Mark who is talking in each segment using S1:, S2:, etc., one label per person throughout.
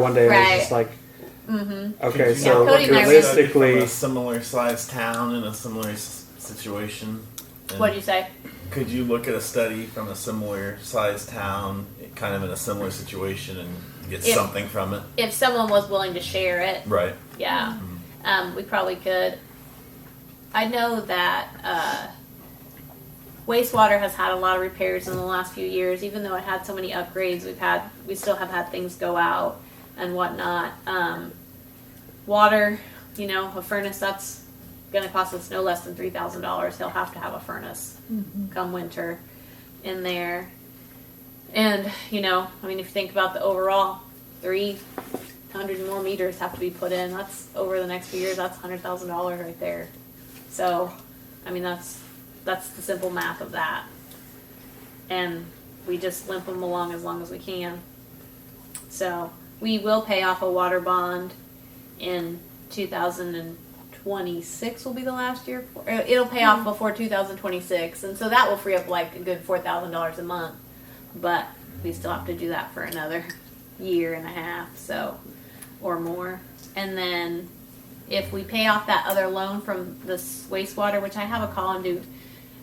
S1: One day I
S2: Right.
S1: was just like,
S2: Mm-hmm.
S1: okay,
S2: Yeah,
S1: so
S2: Cody and I were-
S1: realistically,
S3: a similar sized town in a similar s- situation. and
S2: What'd you say?
S3: could you look at a study from a similar sized town, kind of in a similar situation, and get
S2: Yeah.
S3: something from it?
S2: If someone was willing to share it,
S3: Right.
S2: yeah, um, we probably could. I know that uh, wastewater has had a lot of repairs in the last few years. Even though it had so many upgrades, we've had we still have had things go out and whatnot. Um, water, you know, a furnace that's going to cost us no less than three thousand dollars. He'll have to have a furnace come winter in there. And you know, I mean, if you think about the overall three hundred more meters have to be put in. That's over the next few years. That's hundred thousand dollars right there. So, I mean, that's that's the simple math of that. And we just limp them along as long as we can. So we will pay off a water bond in 2026 will be the last year. for- uh, It'll pay off before 2026, and so that will free up like a good four thousand dollars a month. But we still have to do that for another year and a half, so or more. And then if we pay off that other loan from this wastewater, which I have a call and do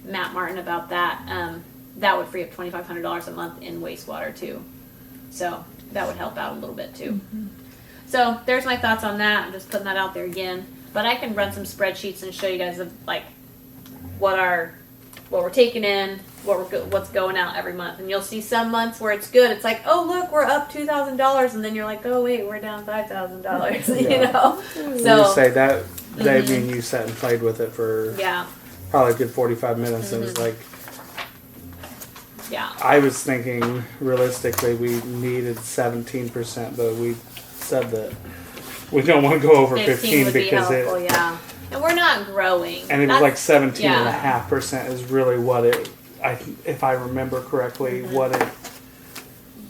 S2: Matt Martin about that, um, that would free up twenty five hundred dollars a month in wastewater too. So that would help out a little bit too. So there's my thoughts on that. I'm just putting that out there again. But I can run some spreadsheets and show you guys of like what our what we're taking in, what we're go- what's going out every month, and you'll see some months where it's good. It's like, oh look, we're up two thousand dollars, and then you're like, oh wait, we're down five thousand dollars. You
S1: Yeah.
S2: know,
S1: we would
S2: so
S1: say that day
S2: Mhm.
S1: me and you sat and played with it for
S2: yeah,
S1: probably a good 45 minutes. And it was
S2: Mhm.
S1: like,
S2: yeah,
S1: I was thinking realistically we needed 17%, but we said that we don't want to go over 15,
S2: fifteen would be
S1: because
S2: helpful.
S1: it.
S2: yeah, and we're not growing.
S1: And it was
S2: That's-
S1: like 17 and a
S2: yeah.
S1: half percent is really what it, I, if I remember correctly, what it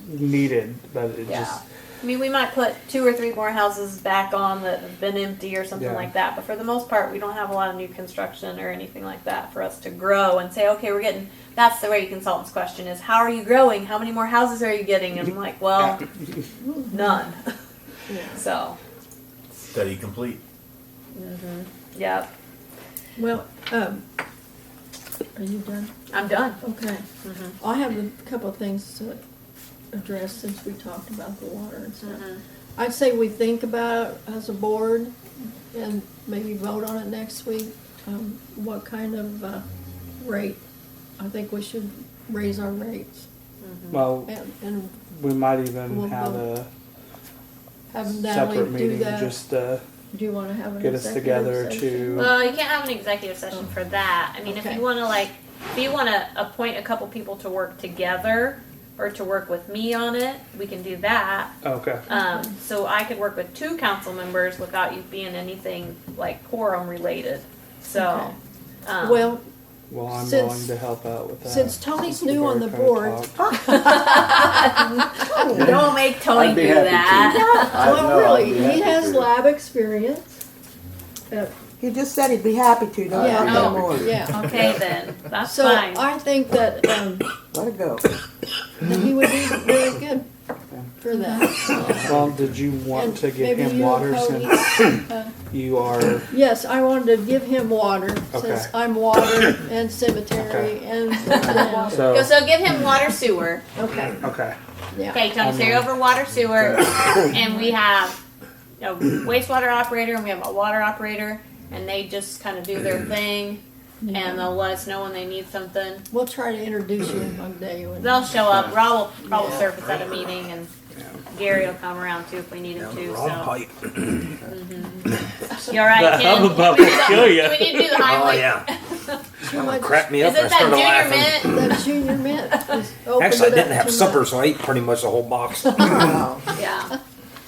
S1: needed. But it
S2: Mm-hmm. Yeah.
S1: just,
S2: I mean, we might put two or three more houses back on that have been empty or something
S1: Yeah.
S2: like that. But for the most part, we don't have a lot of new construction or anything like that for us to grow and say, okay, we're getting. That's the way consultants question is, how are you growing? How many more houses are you getting? And I'm like, well, none. So,
S3: Study complete.
S2: yeah,
S4: Well, um, are you done?
S2: I'm done.
S4: Okay.
S2: Mhm.
S4: I have a couple of things to address since we talked about the water and stuff.
S2: Mm-hmm.
S4: I'd say we think about it as a board and maybe vote on it next week. Um, what kind of, uh, rate? I think we should raise our rates
S1: well,
S4: and, and
S1: we might even
S4: We'll
S1: have
S4: vote.
S1: a
S4: have
S1: separate
S4: Natalie Um, do
S1: meeting
S4: that.
S1: just uh,
S4: Do you wanna have an
S1: get us
S4: executive
S1: together
S4: session?
S1: to.
S2: Well, you can't have an executive session for that. I mean, if
S4: Oh. Okay.
S2: you want to like, if you want to appoint a couple people to work together or to work with me on it, we can do that.
S1: Okay.
S2: Um, so I could work with two council members without you being anything like quorum related. So, um,
S4: Well,
S1: Well, I'm
S4: Since-
S1: willing to help out with that.
S4: since Tony's
S1: We've
S4: new on
S1: already
S4: the
S1: kinda
S4: board,
S1: talked.
S2: don't make Tony
S5: I'd be
S2: do
S5: happy to.
S2: that.
S5: I know,
S4: Well,
S5: I'd
S4: really,
S5: be happy
S4: he has
S5: to.
S4: lab experience. Uh,
S6: He just said he'd be happy to, don't
S4: Yeah.
S6: yeah.
S2: Oh.
S6: more.
S4: Yeah,
S2: Okay, then that's
S4: so
S2: fine.
S4: I think that, um,
S6: Let it go.
S4: that he would be really good for that.
S1: Well, did you want
S4: And
S1: to give
S4: maybe
S1: him
S4: you,
S1: water
S4: Cody.
S1: since
S4: Uh,
S1: you are?
S4: Yes, I wanted to give him water, since
S1: Okay.
S4: I'm water and cemetery and, yeah,
S2: Go-
S1: So
S2: so give him water sewer.
S4: okay,
S1: okay.
S4: yeah.
S2: Okay, Tony, so you're over water sewer, and we have a wastewater operator and we have a water operator, and they just kind of do their thing, and they'll let us know when they need something.
S4: We'll try to introduce you one day when.
S2: They'll show up. Rob will Rob will
S4: Yeah.
S2: surface at a meeting, and Gary will come around too if we need him to. So Mm-hmm. you all right, Ken? Do we need to- Do we need to do the
S7: Oh
S2: highway?
S7: yeah,
S4: Too much-
S7: crack me up.
S2: Is
S7: and I
S2: it that
S7: started
S2: junior
S7: laughing.
S2: mint?
S4: That junior mint, just opened
S7: Actually, I
S4: it up
S7: didn't have
S4: too
S7: supper,
S4: much.
S7: so I ate pretty much the whole box.
S6: Wow.
S2: Yeah.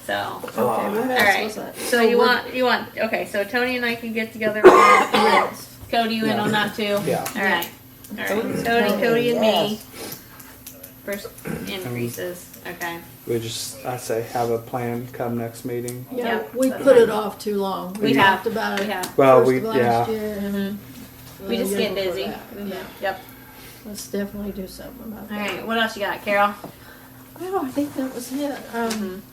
S2: So.
S4: Okay, what
S2: All
S4: else
S2: right.
S4: was that?
S2: So you
S4: we're-
S2: want you want okay. So Tony and I can get together. on that. Cody, you in on that too?
S1: Yeah.
S2: All right. All right. Tony, Cody, and me. First increases. Okay.
S1: We just, I say, have a plan come next meeting.
S4: Yeah,
S2: Yeah,
S4: we
S2: that's
S4: put
S2: fine.
S4: it off too long.
S2: We
S4: We
S2: have.
S4: talked about
S2: We
S4: it
S2: have.
S1: Well,
S4: first
S1: we
S4: of last
S1: yeah.
S4: year.
S2: hmm We
S4: the
S2: just
S4: year
S2: get
S4: before
S2: busy. Mm-hmm.
S4: that. Yeah,
S2: Yep.
S4: let's definitely do something about
S2: All
S4: that.
S2: right. What else you got, Carol?
S4: Well, I think that was it. Um,